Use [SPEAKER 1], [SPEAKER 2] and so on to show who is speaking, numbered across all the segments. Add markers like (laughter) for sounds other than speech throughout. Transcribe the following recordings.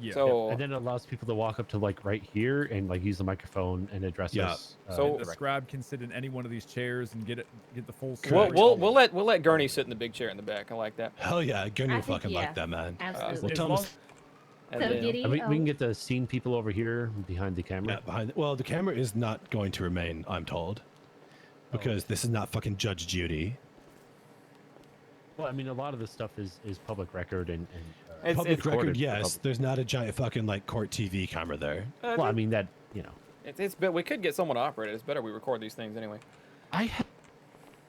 [SPEAKER 1] Yeah.
[SPEAKER 2] So
[SPEAKER 3] and then it allows people to walk up to like right here and like use the microphone and address
[SPEAKER 1] Yeah.
[SPEAKER 3] us. Uh,
[SPEAKER 2] So-
[SPEAKER 1] uh, the
[SPEAKER 3] directly.
[SPEAKER 1] scribe can sit in any one of these chairs and get it, get the full.
[SPEAKER 2] we'll,
[SPEAKER 1] story.
[SPEAKER 2] we'll we'll let we'll let Gurney sit in the big chair in the back. I like that.
[SPEAKER 4] Hell yeah, Gurney
[SPEAKER 5] I
[SPEAKER 4] will
[SPEAKER 5] think,
[SPEAKER 4] fucking
[SPEAKER 5] yeah.
[SPEAKER 4] like that, man.
[SPEAKER 5] Absolutely.
[SPEAKER 4] Well,
[SPEAKER 1] As
[SPEAKER 4] tell
[SPEAKER 1] long-
[SPEAKER 4] him
[SPEAKER 2] And
[SPEAKER 5] so
[SPEAKER 2] then-
[SPEAKER 5] giddy.
[SPEAKER 3] I mean,
[SPEAKER 5] oh,
[SPEAKER 3] we can get the scene people over here behind the camera.
[SPEAKER 4] Yeah, behind. Well, the camera is not going to remain, I'm told, because this is not fucking Judge Judy.
[SPEAKER 3] Well, I mean, a lot of this stuff is is public record and. and uh,
[SPEAKER 2] It's-
[SPEAKER 4] public
[SPEAKER 2] it's
[SPEAKER 4] record,
[SPEAKER 3] recorded for
[SPEAKER 4] yes.
[SPEAKER 3] public-
[SPEAKER 4] There's not a giant fucking like court TV camera there.
[SPEAKER 2] Uh,
[SPEAKER 3] well, I mean that you know.
[SPEAKER 2] it's, it's bet we could get someone to operate it. It's better we record these things anyway.
[SPEAKER 3] I have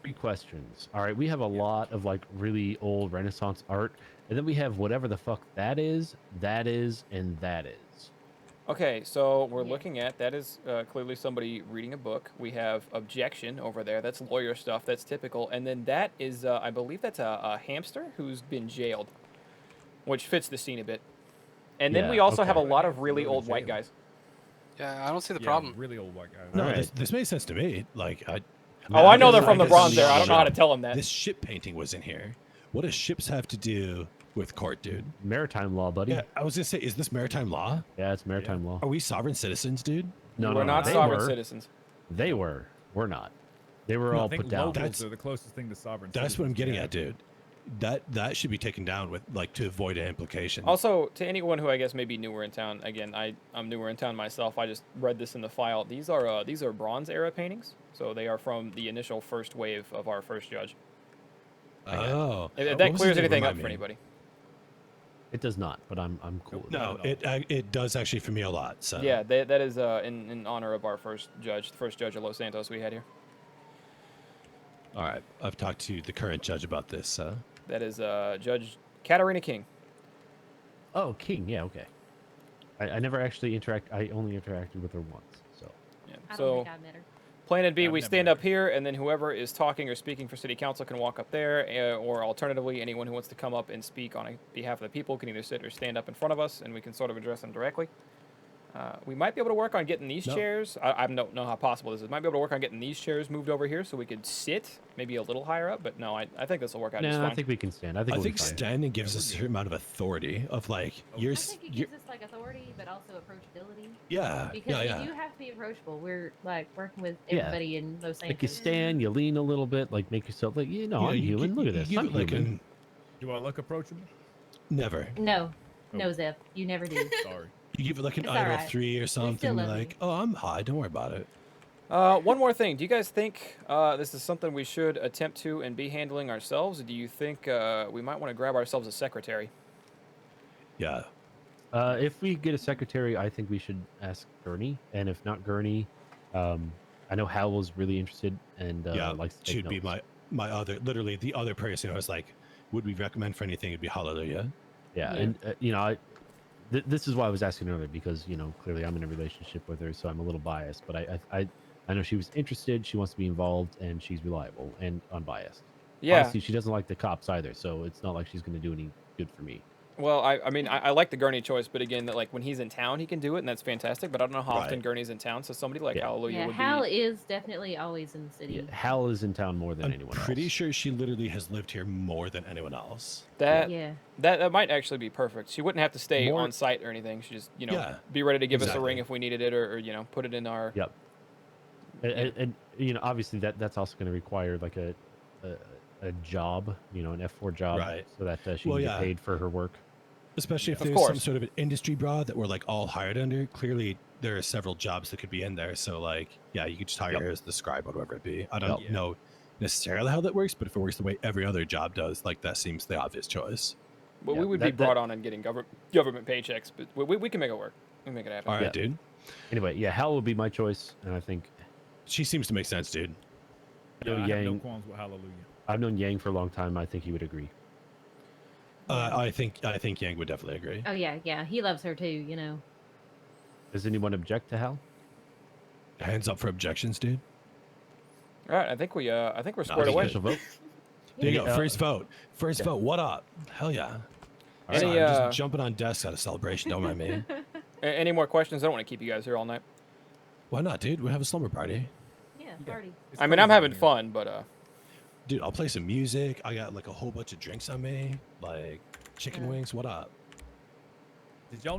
[SPEAKER 3] three questions. All right, we have a lot of like really old Renaissance art, and then we have whatever the fuck that is, that is, and that is.
[SPEAKER 2] Okay, so we're
[SPEAKER 5] Yeah.
[SPEAKER 2] looking at that is uh, clearly somebody reading a book. We have objection over there. That's lawyer stuff. That's typical. And then that is, uh, I believe, that's a, a hamster who's been jailed, which fits the scene a bit. And then we
[SPEAKER 3] Yeah,
[SPEAKER 2] also have a
[SPEAKER 3] okay.
[SPEAKER 2] lot of really
[SPEAKER 1] Hamster in
[SPEAKER 2] old white
[SPEAKER 1] jail.
[SPEAKER 2] guys.
[SPEAKER 6] Yeah, I don't see the
[SPEAKER 1] Yeah,
[SPEAKER 6] problem.
[SPEAKER 1] Really old white guy.
[SPEAKER 4] No,
[SPEAKER 3] Alright.
[SPEAKER 4] this, this makes sense to me. Like, I.
[SPEAKER 2] Oh, I know
[SPEAKER 4] guess
[SPEAKER 2] they're from the
[SPEAKER 4] guess
[SPEAKER 2] Bronze
[SPEAKER 4] this
[SPEAKER 2] there. I don't know how to
[SPEAKER 4] ship-
[SPEAKER 2] tell them that.
[SPEAKER 4] This ship painting was in here. What does ships have to do with court, dude?
[SPEAKER 3] Maritime law, buddy.
[SPEAKER 4] Yeah,
[SPEAKER 3] Yeah,
[SPEAKER 4] I was gonna say, is this maritime law?
[SPEAKER 3] it's maritime law.
[SPEAKER 4] Are we sovereign citizens, dude?
[SPEAKER 3] No,
[SPEAKER 2] Oh, we're
[SPEAKER 3] no,
[SPEAKER 2] not
[SPEAKER 3] they
[SPEAKER 2] sovereign
[SPEAKER 3] were.
[SPEAKER 2] citizens.
[SPEAKER 3] They were. We're not. They were
[SPEAKER 1] No, I
[SPEAKER 3] all
[SPEAKER 1] think
[SPEAKER 3] put down.
[SPEAKER 1] locals
[SPEAKER 4] That's-
[SPEAKER 1] are the closest thing to sovereign.
[SPEAKER 4] That's what I'm
[SPEAKER 1] citizens we
[SPEAKER 4] getting
[SPEAKER 1] have.
[SPEAKER 4] at, dude. That that should be taken down with like to avoid an implication.
[SPEAKER 2] Also, to anyone who I guess may be newer in town, again, I I'm newer in town myself. I just read this in the file. These are uh, these are Bronze era paintings, so they are from the initial first wave of our first judge.
[SPEAKER 4] oh,
[SPEAKER 2] If- if
[SPEAKER 4] What
[SPEAKER 2] Uh, that
[SPEAKER 4] was it
[SPEAKER 2] clears
[SPEAKER 4] that
[SPEAKER 2] anything up
[SPEAKER 4] remind
[SPEAKER 2] for
[SPEAKER 4] me?
[SPEAKER 2] anybody.
[SPEAKER 3] It does not, but I'm I'm cool. with
[SPEAKER 4] No,
[SPEAKER 3] that.
[SPEAKER 4] it I, it does actually for me a lot. So
[SPEAKER 2] Yeah, that, that is uh, in, in honor of our first judge, the first judge of Los Santos we had here.
[SPEAKER 4] All right, I've talked to the current judge about this. So
[SPEAKER 2] That is uh, Judge Katarina King.
[SPEAKER 3] Oh, King. Yeah, okay. I, I never actually interact. I only interacted with her once. So
[SPEAKER 2] Yeah.
[SPEAKER 5] I don't
[SPEAKER 2] So,
[SPEAKER 5] think I met her.
[SPEAKER 2] plan and B,
[SPEAKER 1] I've
[SPEAKER 2] we
[SPEAKER 1] never
[SPEAKER 2] stand
[SPEAKER 1] met
[SPEAKER 2] up here, and then whoever is talking or speaking for city council can walk up there, uh, or alternatively, anyone who wants to come up and speak on behalf of the people can either sit or stand up in front of us, and we can sort of address them directly. Uh, we might be able to work on getting these
[SPEAKER 4] No.
[SPEAKER 2] chairs. I, I don't know how possible this is. Might be able to work on getting these chairs moved over here so we could sit maybe a little higher up, but no, I, I think this will work out just
[SPEAKER 3] no,
[SPEAKER 2] fine.
[SPEAKER 3] I think we can stand. I think
[SPEAKER 4] I
[SPEAKER 3] we'll
[SPEAKER 4] think
[SPEAKER 3] be fine.
[SPEAKER 4] standing gives
[SPEAKER 1] Yeah,
[SPEAKER 4] us
[SPEAKER 1] we're
[SPEAKER 4] a certain amount of authority of like
[SPEAKER 2] Oh.
[SPEAKER 1] I
[SPEAKER 4] you're,
[SPEAKER 5] I
[SPEAKER 4] s-
[SPEAKER 5] think it
[SPEAKER 4] you're
[SPEAKER 5] gives us like authority, but also approachability.
[SPEAKER 4] yeah
[SPEAKER 5] Because
[SPEAKER 4] yeah yeah.
[SPEAKER 5] we do have to be approachable. We're like working with
[SPEAKER 3] Yeah.
[SPEAKER 5] everybody in Los
[SPEAKER 3] like you
[SPEAKER 5] Angeles.
[SPEAKER 3] stand, you lean a little bit, like make yourself like you know
[SPEAKER 4] Yeah,
[SPEAKER 3] I'm
[SPEAKER 4] you
[SPEAKER 3] human.
[SPEAKER 4] gi-
[SPEAKER 3] Look
[SPEAKER 4] you
[SPEAKER 3] at this.
[SPEAKER 4] give
[SPEAKER 3] I'm
[SPEAKER 4] it like
[SPEAKER 3] human.
[SPEAKER 4] an-
[SPEAKER 1] Do I look
[SPEAKER 2] (laughs)
[SPEAKER 1] approachable?
[SPEAKER 4] never.
[SPEAKER 5] No,
[SPEAKER 1] Oh.
[SPEAKER 5] no, Zeph, you never do.
[SPEAKER 1] Sorry.
[SPEAKER 4] You give it like an
[SPEAKER 5] It's
[SPEAKER 4] idle
[SPEAKER 5] alright.
[SPEAKER 4] three or something.
[SPEAKER 5] love
[SPEAKER 4] Like
[SPEAKER 5] me.
[SPEAKER 4] oh, I'm high. Don't worry about it.
[SPEAKER 2] Uh, one more thing. Do you guys think uh, this is something we should attempt to and be handling ourselves? Do you think uh, we might want to grab ourselves a secretary?
[SPEAKER 4] Yeah.
[SPEAKER 3] Uh, if we get a secretary, I think we should ask Gurney, and if not Gurney, um, I know Hal was really interested and uh,
[SPEAKER 4] yeah,
[SPEAKER 3] likes to take
[SPEAKER 4] she'd be
[SPEAKER 3] notes.
[SPEAKER 4] my my other literally the other person. I was like, would we recommend for anything? It'd be Hallelujah.
[SPEAKER 3] yeah,
[SPEAKER 5] Yeah.
[SPEAKER 3] and uh, you know I. Th- this is why I was asking earlier because you know clearly I'm in a relationship with her, so I'm a little biased. But I, I, I, I know she was interested. She wants to be involved, and she's reliable and unbiased.
[SPEAKER 2] Yeah.
[SPEAKER 3] Honestly, she doesn't like the cops either, so it's not like she's going to do any good for me.
[SPEAKER 2] Well, I, I mean, I, I like the Gurney choice, but again, that like when he's in town, he can do it, and that's fantastic. But I don't know how often
[SPEAKER 4] Right.
[SPEAKER 2] Gurney's in town, so somebody like
[SPEAKER 3] Yeah.
[SPEAKER 2] Hallelujah
[SPEAKER 5] yeah,
[SPEAKER 2] would
[SPEAKER 5] Hal
[SPEAKER 2] be.
[SPEAKER 5] is definitely always in the
[SPEAKER 3] Yeah,
[SPEAKER 5] city.
[SPEAKER 3] Hal is in town more than
[SPEAKER 4] I'm
[SPEAKER 3] anyone.
[SPEAKER 4] pretty
[SPEAKER 3] else.
[SPEAKER 4] sure she literally has lived here more than anyone else.
[SPEAKER 5] Yeah.
[SPEAKER 2] That, that that might actually be perfect. She wouldn't have to stay
[SPEAKER 3] More-
[SPEAKER 2] on site or anything. She just you know
[SPEAKER 4] Yeah,
[SPEAKER 2] be ready to give us a ring
[SPEAKER 4] exactly.
[SPEAKER 2] if we needed it, or, or you know put it in our.
[SPEAKER 3] Yep. And, and, and, you know, obviously that that's also going to require like a, a a job, you know, an F four job,
[SPEAKER 4] Right.
[SPEAKER 3] so that uh, she
[SPEAKER 4] Well,
[SPEAKER 3] can
[SPEAKER 4] yeah.
[SPEAKER 3] get paid for her work.
[SPEAKER 4] Especially if
[SPEAKER 2] Of
[SPEAKER 4] there's some
[SPEAKER 2] course.
[SPEAKER 4] sort of an industry bra that we're like all hired under. Clearly, there are several jobs that could be in there. So, like, yeah, you could just hire
[SPEAKER 3] Yep.
[SPEAKER 4] her as the scribe or whatever it be. I don't
[SPEAKER 1] Yep.
[SPEAKER 4] know necessarily how that works, but if it works the way every other job does, like that seems the obvious choice.
[SPEAKER 2] Well,
[SPEAKER 3] Yeah,
[SPEAKER 2] we would be
[SPEAKER 3] that- that-
[SPEAKER 2] brought on and getting government government paychecks, but we, we, we can make it work. We can make it happen.
[SPEAKER 4] All right,
[SPEAKER 3] Yeah.
[SPEAKER 4] dude.
[SPEAKER 3] Anyway, yeah, Hal would be my choice, and I think
[SPEAKER 4] She seems to make sense, dude.
[SPEAKER 3] No,
[SPEAKER 1] I have no
[SPEAKER 3] Yang.
[SPEAKER 1] qualms with Hallelujah.
[SPEAKER 3] I've known Yang for a long time. I think he would agree.
[SPEAKER 4] Uh, I think I think Yang would definitely agree.
[SPEAKER 5] Oh yeah, yeah. He loves her too. You know.
[SPEAKER 3] Does anyone object to Hal?
[SPEAKER 4] Hands up for objections, dude.
[SPEAKER 2] All right. I think we uh I think we're
[SPEAKER 4] No,
[SPEAKER 2] squared
[SPEAKER 4] I think
[SPEAKER 2] away.
[SPEAKER 4] it's
[SPEAKER 3] Special vote.
[SPEAKER 4] There you
[SPEAKER 3] Yeah.
[SPEAKER 4] go. First vote. First
[SPEAKER 3] Yeah.
[SPEAKER 4] vote. What up? Hell yeah. All right,
[SPEAKER 2] Any,
[SPEAKER 4] I'm
[SPEAKER 2] uh,
[SPEAKER 4] just jumping on desks at a celebration. Don't mind me.
[SPEAKER 2] A- Any more questions? I don't want to keep you guys here all night.
[SPEAKER 4] Why not, dude? We'll have a slumber party.
[SPEAKER 5] Yeah, party.
[SPEAKER 1] It's
[SPEAKER 2] I mean, I'm
[SPEAKER 1] crazy out
[SPEAKER 2] having
[SPEAKER 1] here.
[SPEAKER 2] fun, but uh,
[SPEAKER 4] Dude, I'll play some music. I got like a whole bunch of drinks on me, like chicken
[SPEAKER 5] Yeah.
[SPEAKER 4] wings. What up?
[SPEAKER 1] Did y'all